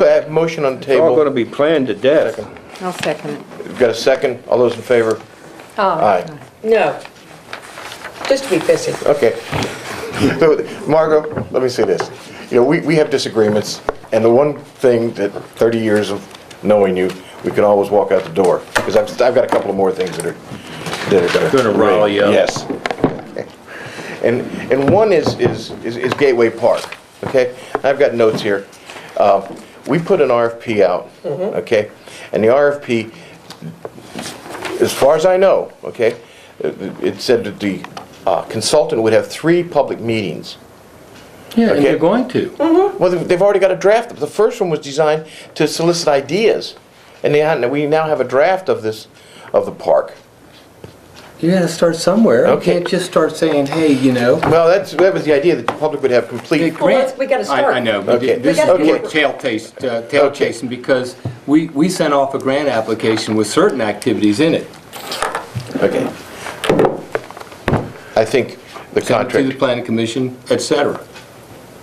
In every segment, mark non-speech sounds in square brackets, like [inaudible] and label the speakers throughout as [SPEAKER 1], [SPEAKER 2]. [SPEAKER 1] uh, motion on the
[SPEAKER 2] It's all
[SPEAKER 1] table.
[SPEAKER 2] gonna be planned to death.
[SPEAKER 3] I'll second it.
[SPEAKER 1] We've got a second. All those in favor?
[SPEAKER 4] Ah.
[SPEAKER 1] Aye.
[SPEAKER 5] No. Just to be busy.
[SPEAKER 1] Okay. [laughs] Margot, let me say this. You know, we, we have disagreements, and the one thing that 30 years of knowing you, we can always walk out the door, because I've, I've got a couple of more things that are, that are gonna...
[SPEAKER 2] Gonna rile you up.
[SPEAKER 1] Yes. And, and one is, is, is is Gateway Park, okay? I've got notes here. Uh, We put an RFP out, okay? And the RFP, as far as I know, okay, it said that the uh, consultant would have three public meetings.
[SPEAKER 2] Yeah, and
[SPEAKER 1] Okay.
[SPEAKER 2] you're going to.
[SPEAKER 1] Well, they've they've already got a draft. The first one was designed to solicit ideas, and they, had- we now have a draft of this, of the park.
[SPEAKER 6] You gotta start somewhere. You
[SPEAKER 1] Okay.
[SPEAKER 6] can't just start saying, hey, you know.
[SPEAKER 1] Well, that's, that was the idea, that the public would have complete,
[SPEAKER 5] Well, let's- we gotta
[SPEAKER 7] I-
[SPEAKER 5] start.
[SPEAKER 7] I know, but
[SPEAKER 1] Okay.
[SPEAKER 7] this
[SPEAKER 5] We
[SPEAKER 7] is
[SPEAKER 5] gotta
[SPEAKER 7] more
[SPEAKER 5] get-
[SPEAKER 7] tail taste, uh, tail
[SPEAKER 1] Okay.
[SPEAKER 7] chasing, because we, we sent off a grant application with certain activities in it.
[SPEAKER 1] okay. I think the
[SPEAKER 7] sent it To the
[SPEAKER 1] contract,
[SPEAKER 7] planning commission, et cetera.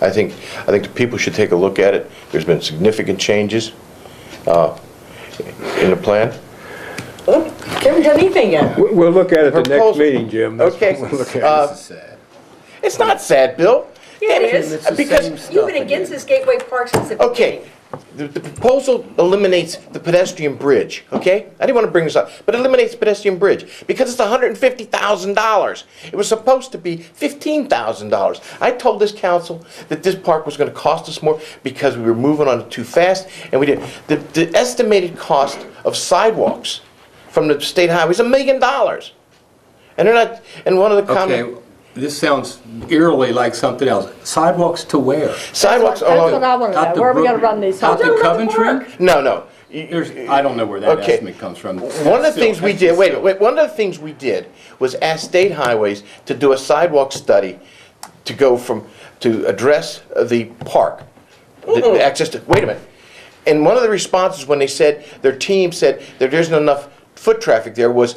[SPEAKER 1] I think, I think the people should take a look at it. There's been significant changes uh, in the plan.
[SPEAKER 5] Look, Haven't done anything yet.
[SPEAKER 2] We- We'll look at it the next
[SPEAKER 1] Proposal.
[SPEAKER 2] meeting, Jim. That's what
[SPEAKER 1] Okay.
[SPEAKER 2] we'll look at.
[SPEAKER 1] Uh,
[SPEAKER 7] This is sad.
[SPEAKER 1] It's not sad, Bill.
[SPEAKER 5] Yeah, it
[SPEAKER 1] Damn
[SPEAKER 5] is.
[SPEAKER 6] It's the
[SPEAKER 1] Because
[SPEAKER 6] same stuff
[SPEAKER 5] You've been
[SPEAKER 6] again.
[SPEAKER 5] against this Gateway Park since the beginning.
[SPEAKER 1] Okay, the the proposal eliminates the pedestrian bridge, okay? I didn't want to bring this up, but it eliminates the pedestrian bridge because it's $150,000. It was supposed to be $15,000. I told this council that this park was going to cost us more because we were moving on it too fast, and we did. The the estimated cost of sidewalks from the state highway is a million dollars. And they're not, and one of the
[SPEAKER 7] Okay,
[SPEAKER 1] comments,
[SPEAKER 7] this sounds eerily like something else. Sidewalks to where?
[SPEAKER 1] sidewalks
[SPEAKER 4] That's what I
[SPEAKER 1] along,
[SPEAKER 4] want to
[SPEAKER 7] Out
[SPEAKER 4] know,
[SPEAKER 7] to
[SPEAKER 4] where are we going to
[SPEAKER 7] Brook-
[SPEAKER 4] run these?
[SPEAKER 7] Out
[SPEAKER 4] houses?
[SPEAKER 7] to
[SPEAKER 5] Don't run the
[SPEAKER 7] Coventry?
[SPEAKER 1] no, no. You-
[SPEAKER 7] There's, I don't know where that
[SPEAKER 1] Okay.
[SPEAKER 7] estimate comes from.
[SPEAKER 1] One of the
[SPEAKER 7] Still,
[SPEAKER 1] things we
[SPEAKER 7] that's
[SPEAKER 1] did,
[SPEAKER 7] just-
[SPEAKER 1] wait, wait, one of the things we did was ask state highways to do a sidewalk study to go from, to address the park, the- the access to, wait a minute. And one of the responses when they said, their team said that there isn't enough foot traffic there was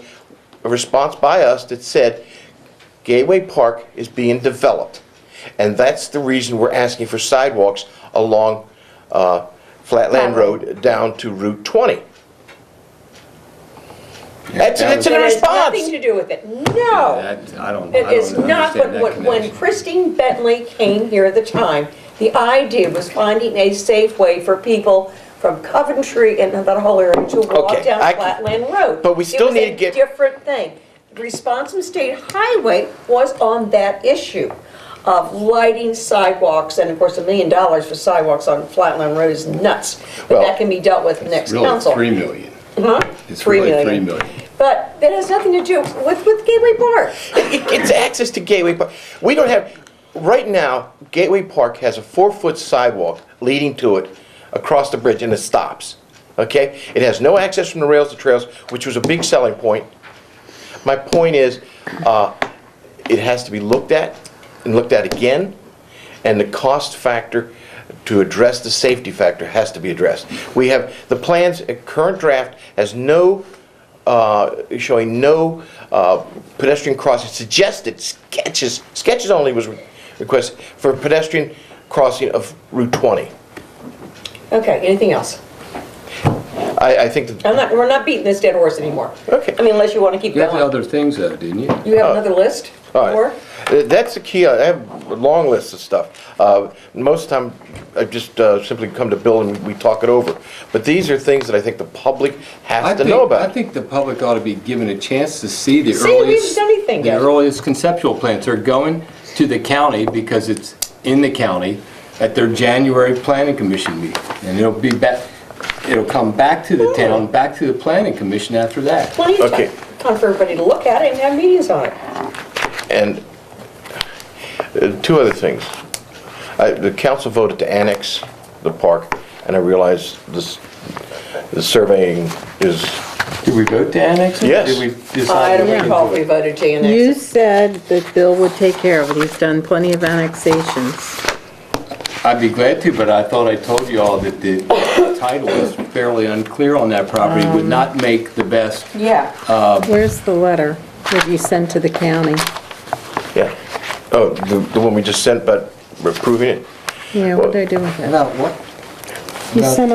[SPEAKER 1] a response by us that said, Gateway Park is being developed. And that's the reason we're asking for sidewalks along uh, Flatland Road down to Route 20. That's, that's in
[SPEAKER 5] It has
[SPEAKER 1] response.
[SPEAKER 5] nothing to do with it. No.
[SPEAKER 7] That, I don't, I
[SPEAKER 5] It
[SPEAKER 7] don't
[SPEAKER 5] is not, but
[SPEAKER 7] understand that
[SPEAKER 5] what- when
[SPEAKER 7] connection.
[SPEAKER 5] Christine Bentley came here at the time, the idea was finding a safe way for people from Coventry and that whole area to walk
[SPEAKER 1] Okay,
[SPEAKER 5] down
[SPEAKER 1] I-
[SPEAKER 5] Flatland Road.
[SPEAKER 1] but we still need to
[SPEAKER 5] It
[SPEAKER 1] get-
[SPEAKER 5] was a different thing. Response from State Highway was on that issue of lighting sidewalks, and of course, a million dollars for sidewalks on Flatland Road is nuts. But
[SPEAKER 1] Well-
[SPEAKER 5] that can be dealt with next
[SPEAKER 7] Really,
[SPEAKER 5] council.
[SPEAKER 7] three million.
[SPEAKER 5] Huh?
[SPEAKER 7] It's
[SPEAKER 5] Three
[SPEAKER 7] really
[SPEAKER 5] million.
[SPEAKER 7] three million.
[SPEAKER 5] But that has nothing to do with, with Gateway Park.
[SPEAKER 1] [laughs] It- It's access to Gateway Park. We don't have, right now, Gateway Park has a four-foot sidewalk leading to it across the bridge, and it stops, okay? It has no access from the rails to trails, which was a big selling point. My point is, uh, it has to be looked at, and looked at again, and the cost factor to address the safety factor has to be addressed. We have, the plans, uh, current draft has no uh, showing no uh, pedestrian crossing, suggested sketches, sketches only was requested for pedestrian crossing of Route 20.
[SPEAKER 5] Okay, anything else?
[SPEAKER 1] I, I think that,
[SPEAKER 5] I'm not, we're not beating this dead horse anymore.
[SPEAKER 1] Okay. Oh.
[SPEAKER 5] I mean, unless you want to keep
[SPEAKER 7] You had
[SPEAKER 5] going.
[SPEAKER 7] other things though, didn't you?
[SPEAKER 5] You have another list?
[SPEAKER 1] all
[SPEAKER 5] Or
[SPEAKER 1] right. Uh, That's the key, I have a long list of stuff. Uh, Most of the time, I just uh, simply come to Bill and we talk it over. But these are things that I think the public
[SPEAKER 7] I
[SPEAKER 1] has to
[SPEAKER 7] think-
[SPEAKER 1] know
[SPEAKER 7] I
[SPEAKER 1] about.
[SPEAKER 7] think the public ought to be given a chance to see the
[SPEAKER 5] See, we haven't
[SPEAKER 7] earliest.
[SPEAKER 5] done anything yet.
[SPEAKER 7] The earliest conceptual plans are going to the county because it's in the county at their January planning commission meeting. And it'll be back, it'll come back to the town, back to the planning commission after that.
[SPEAKER 5] plenty of
[SPEAKER 1] Okay.
[SPEAKER 5] time time for everybody to look at it and have meetings on it.
[SPEAKER 1] And uh, two other things. I- The council voted to annex the park, and I realize this, the surveying is,
[SPEAKER 7] Did we vote to annex it?
[SPEAKER 1] Yes.
[SPEAKER 7] Did we decide?
[SPEAKER 5] I don't
[SPEAKER 7] we didn't
[SPEAKER 5] recall
[SPEAKER 7] do
[SPEAKER 5] if
[SPEAKER 7] it?
[SPEAKER 5] we voted to
[SPEAKER 3] You
[SPEAKER 5] annex it.
[SPEAKER 3] said that Bill would take care of it. He's done plenty of annexations.
[SPEAKER 7] I'd be glad to, but I thought I told you all that the [coughs] title is fairly unclear on that property, would not make the best.
[SPEAKER 5] Yeah.
[SPEAKER 3] Where's the letter that you sent to the county?
[SPEAKER 1] yeah. Oh, the the one we just sent, but approving it?
[SPEAKER 3] Yeah, what did I do with that?
[SPEAKER 7] About what?
[SPEAKER 3] You sent